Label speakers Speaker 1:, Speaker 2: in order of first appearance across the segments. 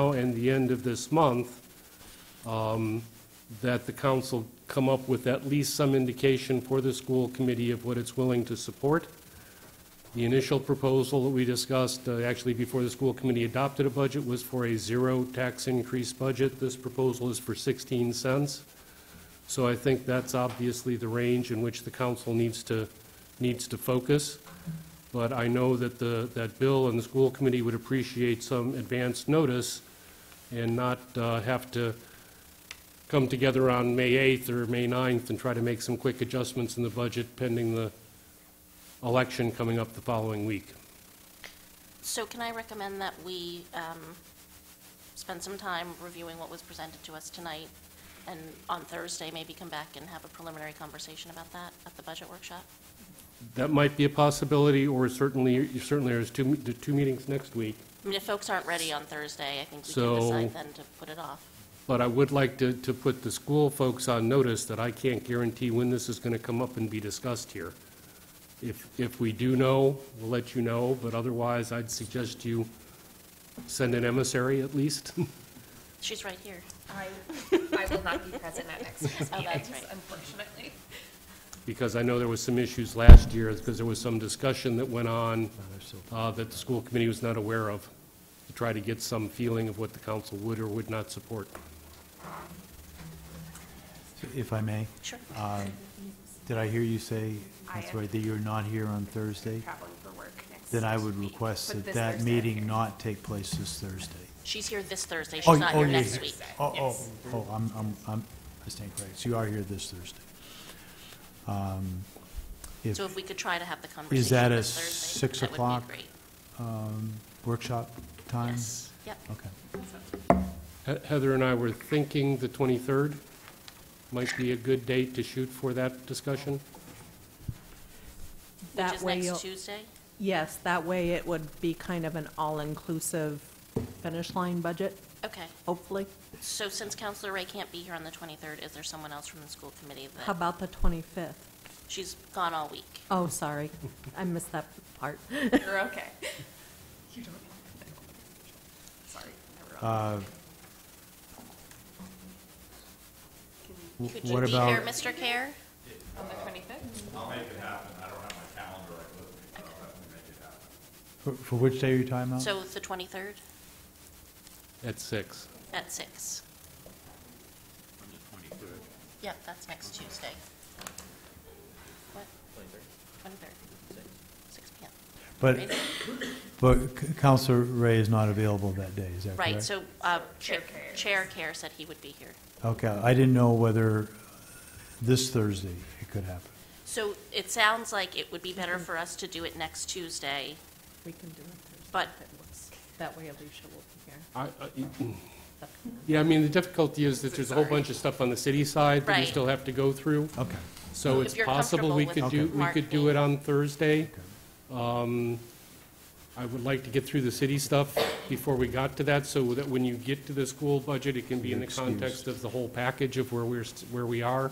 Speaker 1: now and the end of this month, um, that the council come up with at least some indication for the school committee of what it's willing to support. The initial proposal that we discussed, uh, actually before the school committee adopted a budget, was for a zero tax increase budget. This proposal is for 16 cents. So I think that's obviously the range in which the council needs to, needs to focus. But I know that the, that Bill and the school committee would appreciate some advance notice and not uh, have to come together on May 8th or May 9th and try to make some quick adjustments in the budget pending the election coming up the following week.
Speaker 2: So can I recommend that we um, spend some time reviewing what was presented to us tonight, and on Thursday, maybe come back and have a preliminary conversation about that at the budget workshop?
Speaker 1: That might be a possibility, or certainly, certainly there's two, the two meetings next week.
Speaker 2: I mean, if folks aren't ready on Thursday, I think we
Speaker 1: So-
Speaker 2: can decide then to put it off.
Speaker 1: But I would like to, to put the school folks on notice that I can't guarantee when this is going to come up and be discussed here. If, if we do know, we'll let you know, but otherwise, I'd suggest you send an emissary at least.
Speaker 2: She's right here.
Speaker 3: I, I will not be present at next week's
Speaker 2: Oh,
Speaker 3: meeting,
Speaker 2: that's right.
Speaker 3: unfortunately.
Speaker 1: because I know there was some issues last year, because there was some discussion that went on uh, that the school committee was not aware of, to try to get some feeling of what the council would or would not support.
Speaker 4: If I may, Uh,
Speaker 2: Sure.
Speaker 4: did I hear you say,
Speaker 3: I
Speaker 4: that's
Speaker 3: am-
Speaker 4: right, that you're not here on Thursday?
Speaker 3: Traveling for work next.
Speaker 4: Then I would
Speaker 3: week,
Speaker 4: request
Speaker 3: but
Speaker 4: that
Speaker 3: this
Speaker 4: that
Speaker 3: Thursday I'm
Speaker 4: meeting
Speaker 3: here.
Speaker 4: not take place this Thursday.
Speaker 2: She's here this Thursday,
Speaker 4: Oh,
Speaker 2: she's not
Speaker 4: oh,
Speaker 2: here
Speaker 4: you're
Speaker 2: next week.
Speaker 4: Oh, oh,
Speaker 3: Yes.
Speaker 4: oh, I'm, I'm, I'm, I stand corrected. So you are here this Thursday. Um, If,
Speaker 2: So if we could try to have the
Speaker 4: is
Speaker 2: conversation
Speaker 4: that a
Speaker 2: this Thursday,
Speaker 4: six
Speaker 2: that
Speaker 4: o'clock
Speaker 2: would be great.
Speaker 4: workshop time?
Speaker 2: Yes, yep.
Speaker 4: Okay.
Speaker 1: He- Heather and I were thinking the 23rd might be a good date to shoot for that discussion.
Speaker 2: Which
Speaker 5: That
Speaker 2: is
Speaker 5: way,
Speaker 2: next
Speaker 5: you'll-
Speaker 2: Tuesday?
Speaker 5: yes, that way it would be kind of an all-inclusive finish line budget,
Speaker 2: Okay.
Speaker 5: hopefully.
Speaker 2: So since Counselor Ray can't be here on the 23rd, is there someone else from the school committee
Speaker 5: How
Speaker 2: that,
Speaker 5: about the 25th?
Speaker 2: she's gone all week?
Speaker 5: Oh, sorry, I missed that part.
Speaker 3: You're okay. You don't. Sorry. I wrote-
Speaker 4: Uh, w-
Speaker 2: Could you
Speaker 4: What
Speaker 2: be here,
Speaker 4: about,
Speaker 2: Mr. Care?
Speaker 3: On the twenty-fifth?
Speaker 4: for- for which day are you talking about?
Speaker 2: So the 23rd
Speaker 1: At six.
Speaker 2: at six. Yep, that's next Tuesday. What? 23rd, 6 PM.
Speaker 4: But, but C- Counselor Ray is not available that day, is that correct?
Speaker 2: Right, so uh, Chair
Speaker 3: Chair Care.
Speaker 2: Chair Care said he would be here.
Speaker 4: Okay, I didn't know whether this Thursday it could happen.
Speaker 2: So it sounds like it would be better
Speaker 4: Mm-hmm.
Speaker 2: for us to do it next Tuesday.
Speaker 5: We can do it
Speaker 2: But-
Speaker 5: Thursday if it works. That way Alicia will be here.
Speaker 1: I- I- Yeah, I mean, the difficulty is that there's a whole
Speaker 3: Sorry.
Speaker 1: bunch of stuff on the city side that we
Speaker 2: Right.
Speaker 1: still have to go through.
Speaker 4: Okay.
Speaker 1: So
Speaker 2: If
Speaker 1: it's
Speaker 2: you're
Speaker 1: possible we could
Speaker 2: comfortable
Speaker 1: do,
Speaker 2: with
Speaker 1: we could do
Speaker 2: Mark
Speaker 1: it on Thursday.
Speaker 4: Okay.
Speaker 1: Um, I would like to get through the city stuff before we got to that, so that when you get to the school budget, it can be in the
Speaker 4: Excuse.
Speaker 1: context of the whole package of where we're, st- where we are.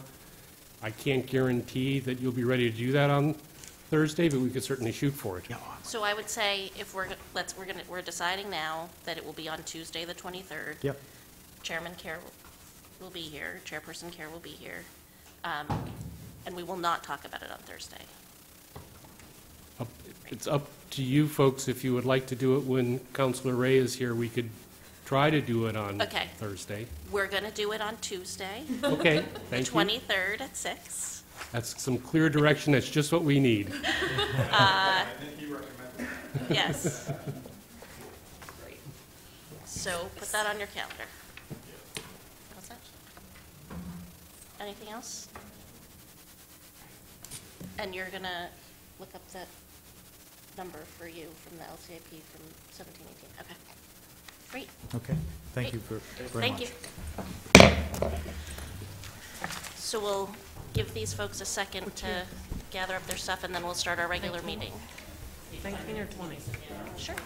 Speaker 1: I can't guarantee that you'll be ready to do that on Thursday, but we could certainly shoot for it.
Speaker 2: So I would say if we're, let's, we're going to, we're deciding now that it will be on Tuesday, the 23rd.
Speaker 4: Yep,
Speaker 2: Chairman Care will be here, Chairperson Care will be here, um, and we will not talk about it on Thursday.
Speaker 1: Up- It's up to you folks, if you would like to do it when Counselor Ray is here, we could try to do it on
Speaker 2: Okay.
Speaker 1: Thursday.
Speaker 2: We're going to do it on Tuesday,
Speaker 1: Okay,
Speaker 2: the
Speaker 1: thank you.
Speaker 2: 23rd at six.
Speaker 1: That's some clear direction, that's just what we need.
Speaker 2: Yes,
Speaker 3: Great.
Speaker 2: so put that on your calendar. How's that? Anything else? And you're going to look up that number for you from the LCIP from 1718. Okay. Great.
Speaker 4: okay. Thank you for, very
Speaker 2: Thank
Speaker 4: much.
Speaker 2: you. So we'll give these folks a second to gather up their stuff, and then we'll start our regular meeting.
Speaker 5: 19 or 20?
Speaker 2: Sure.